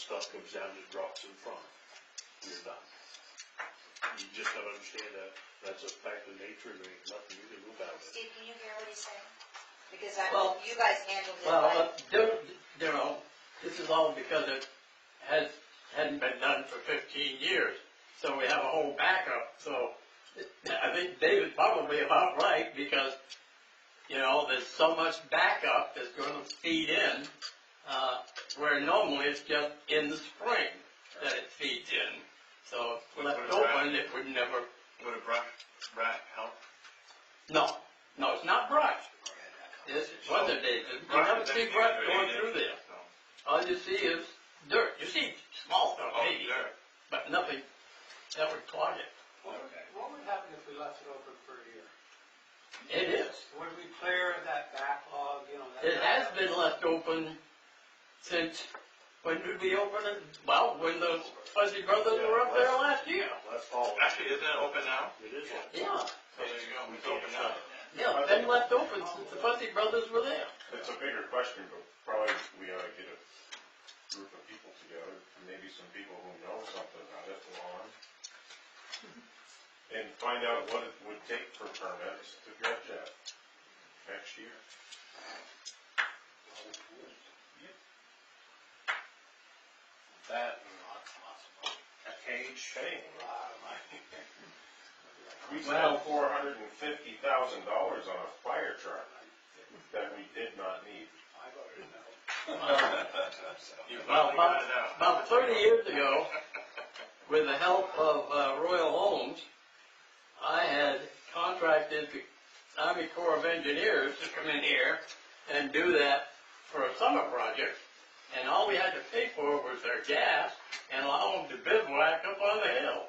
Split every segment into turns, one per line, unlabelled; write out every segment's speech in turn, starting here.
stuff comes down and drops in front, you're done. You just don't understand that, that's a fact of nature, and there ain't nothing you can do about it.
Steve, can you hear what he's saying? Because I,
Well-
you guys handled it
Well,
like,
uh, Dar- Darrell, this is all because it has, hadn't been done for fifteen years, so we have a whole backup, so I think David's probably about right, because, you know, there's so much backup that's gonna feed in, uh, where normally it's just in the spring that it feeds in. So if left open, it would never,
Would a brat, brat help?
no, no, it's not brush, it's weather days, you never see brush going through there.
Oh,
All you see is dirt. You see small stuff,
Oh,
maybe,
dirt.
but nothing that would clog it.
What would,
Okay.
what would happen if we left it open for a year?
It is.
Would we clear that backlog, you know? that-
It has been left open since, when did we open it? Well, when the Fuzzy Brothers were up there last year.
That's all.
Actually, isn't it open now?
It is. like-
Yeah,
There you go, it's open now.
yeah, it's been left open since the Fuzzy Brothers were there.
It's a bigger question, but probably we ought to get a group of people together, maybe some people who know something about it, lawn. And find out what it would take for permits to get that next year.
That, a cage.
Shame. We spent four hundred and fifty thousand dollars on a fire truck that we did not need.
You
Well,
finally
about,
got it out.
about thirty years ago, with the help of uh, Royal Homes, I had contracted the Army Corps of Engineers to come in here and do that for a summer project. And all we had to pay for was their gas and allow them to bivouac up on the hill.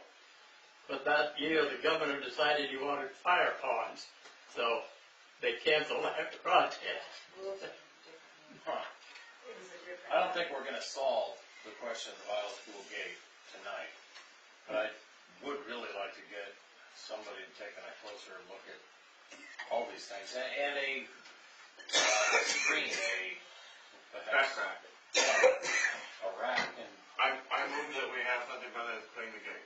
But that year, the governor decided he wanted fire ponds, so they canceled that project.
moved
I don't think we're gonna solve the question of the Viola School gate tonight, but I would really like to get somebody to take a closer look at all these things, and, and a, uh, screen, a, perhaps
Background.
a rack, and
I, I move that we have something better than playing the game.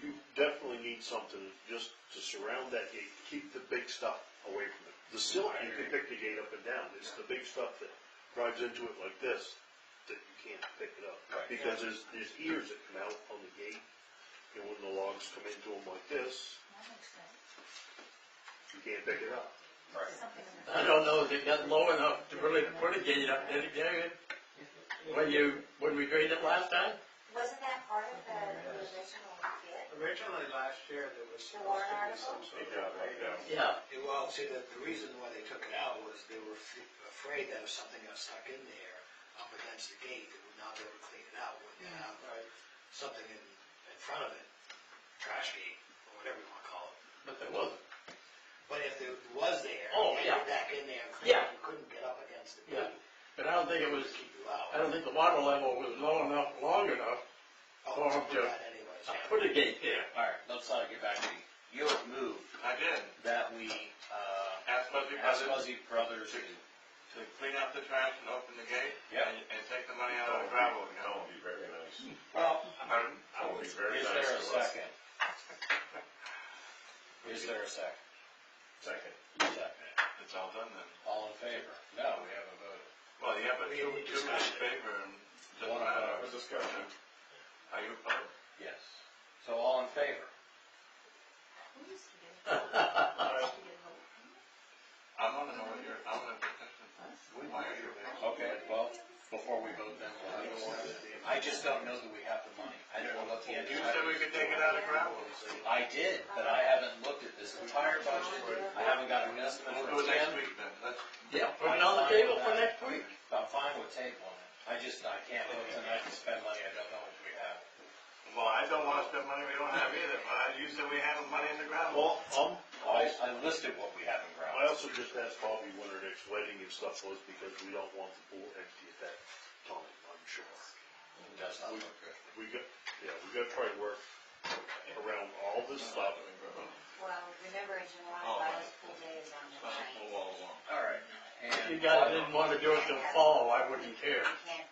You definitely need something just to surround that gate, keep the big stuff away from it. The silt, you can pick the gate up and down, it's the big stuff that drives into it like this, that you can't pick it up.
Right.
Because there's, there's ears that come out on the gate, and when the logs come into them like this, you can't pick it up.
I don't know if it got low enough to really put a gate up there, Gary. When you, when we drained it last time?
Wasn't that part of the the original bid?
Originally, last year, there was
The
supposed
warrant
to be
article?
some sort
They
of.
got like that.
Yeah.
Well, see, the, the reason why they took it out was they were f- afraid that if something got stuck in there, up against the gate, they would not be able to clean it out, would have
Right.
something in, in front of it, trash gate, or whatever you wanna call it.
But there wasn't.
But if it was there,
Oh,
and
yeah.
you're back in there, and clean it,
Yeah.
you couldn't get up against the
Yeah.
gate,
But I don't think it was,
to keep you
I
out.
don't think the water level was low enough, long enough
Oh,
or
to
to-
that anyways,
to
yeah.
put a gate there.
alright, let's not get back to you. You have moved
I did,
that we, uh,
ask Fuzzy
ask
Brothers
Fuzzy Brothers to,
to clean out the trash and open the gate.
Yeah.
And, and take the money out of the gravel, you
That
know.
would be very nice.
well,
Pardon?
That would be very
is
nice.
there a
to us.
second? Is there a second?
Second.
Second.
It's all done then.
All in favor? No, we haven't voted.
Well, yeah, but
We
two,
need
two in
discussion.
favor, and doesn't
One of
matter.
ours.
Let's discuss it.
Are you opposed?
Yes. So all in favor?
I'm on the know what you're, I'm on the petition. Why are you there?
Okay, well, before we vote then, we'll have a warrant. I just don't know that we have the money. I don't know what the end.
You said we could take it out of gravel.
I did, but I haven't looked at this entire budget. I haven't got an estimate
We'll do it
from
next
Ken.
week then, that's,
Yeah, put it on the table for next week.
I'm fine with tabling it. I just, I can't vote tonight to spend money. I don't know what we have.
well, I don't wanna spend money we don't have either, but I- you said we have the money in the gravel.
Well, um,
I, I listed what we have in
I
ground.
also just asked Bobby when her next wedding and stuff was, because we don't want the pool empty at that time, I'm sure.
It does not look good.
We got, yeah, we gotta try to work around all this stuff,
Well, remember in July,
Oh,
Violet's pool day is on the
Well,
ninth.
well, well.
All right.
If you
And
guys didn't wanna do it till fall, I wouldn't care.
You can't